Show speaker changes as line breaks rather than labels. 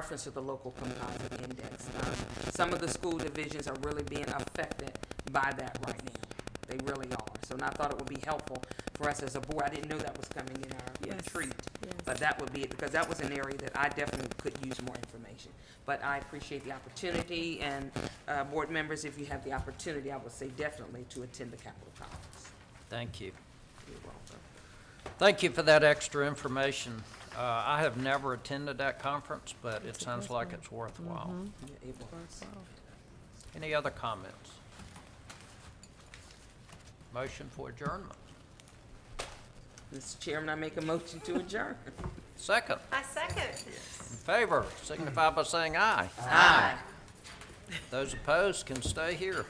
reference to the local composite index. Um, Some of the school divisions are really being affected by that right now. They really are. So and I thought it would be helpful for us as a board. I didn't know that was coming in our
Yes,
retreat.
yes.
But that would be, it because that was an area that I definitely could use more information. But I appreciate the opportunity and, uh, board members, if you have the opportunity, I would say definitely to attend the Capitol Conference.
Thank you.
You're welcome.
Thank you for that extra information. Uh, I have never attended that conference, but it sounds like it's worthwhile.
Yeah, it was.
Any other comments? Motion for adjournment.
Mr. Chairman, I make a motion to adjourn.
Second,
I second.
in favor, signify by saying aye.
Aye.
Those opposed can stay here.